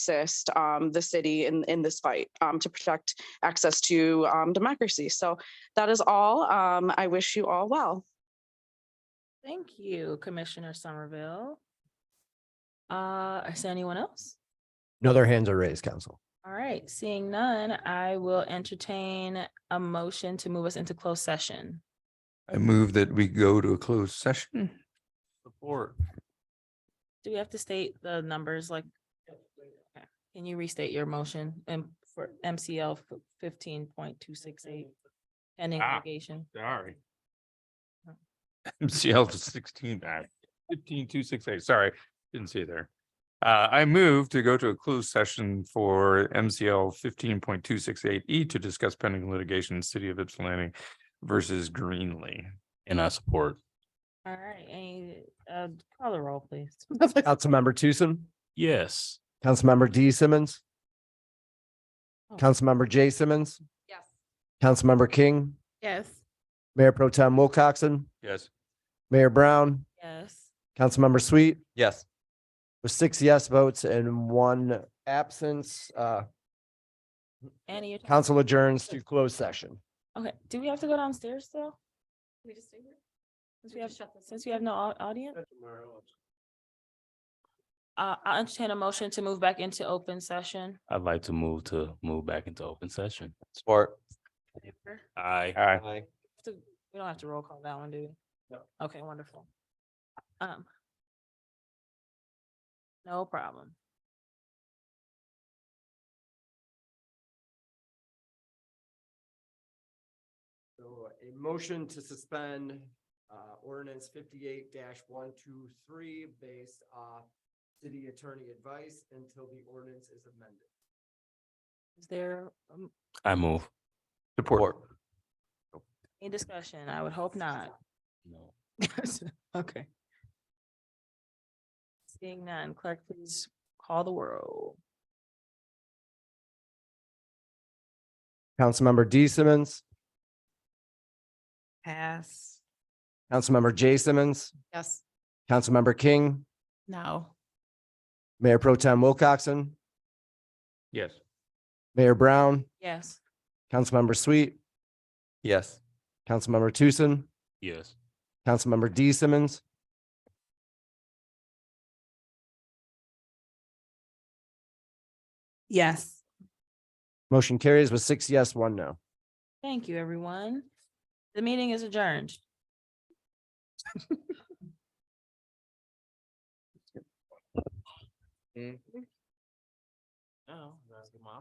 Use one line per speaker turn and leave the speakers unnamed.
assist um, the city in, in this fight um, to protect access to um, democracy. So that is all. Um, I wish you all well.
Thank you, Commissioner Somerville. Uh, is there anyone else?
No, their hands are raised, council.
All right, seeing none, I will entertain a motion to move us into closed session.
I move that we go to a closed session. Support.
Do we have to state the numbers like? Okay. Can you restate your motion and for MCL fifteen point two six eight? Pending
Ah.
litigation.
Sorry. MCL to sixteen, uh, fifteen, two, six, eight, sorry, didn't see it there. Uh, I move to go to a closed session for MCL fifteen point two six eight E to discuss pending litigation, city of Ypsilanti versus Greenlee. And I support.
All right, any, uh, call the roll, please.
Councilmember Tucson,
Yes.
Councilmember D Simmons,
Oh.
Councilmember J Simmons,
Yes.
Councilmember King,
Yes.
Mayor Pro Tem Wilcoxen,
Yes.
Mayor Brown,
Yes.
Councilmember Sweet,
Yes.
with six yes votes and one absence, uh,
Annie, your turn.
council adjourns to closed session.
Okay, do we have to go downstairs though?
We just do here?
Since we have,
shut this.
since we have no au- audience? Uh, I'll entertain a motion to move back into open session.
I'd like to move to move back into open session.
Support.
Aye.
Aye.
To- We don't have to roll call that one, do we?
No.
Okay, wonderful. Um. No problem.
So a motion to suspend uh, ordinance fifty-eight one two three based off city attorney advice until the ordinance is amended.
Is there um,
I move.
Support.
any discussion? I would hope not.
No.
Okay. Seeing none, clerk, please call the roll.
Councilmember D Simmons,
Pass.
Councilmember J Simmons,
Yes.
Councilmember King,
No.
Mayor Pro Tem Wilcoxen,
Yes.
Mayor Brown,
Yes.
Councilmember Sweet,
Yes.
Councilmember Tucson,
Yes.
Councilmember D Simmons,
Yes.
motion carries with six yes, one no.
Thank you, everyone. The meeting is adjourned.
Oh, that's the mom.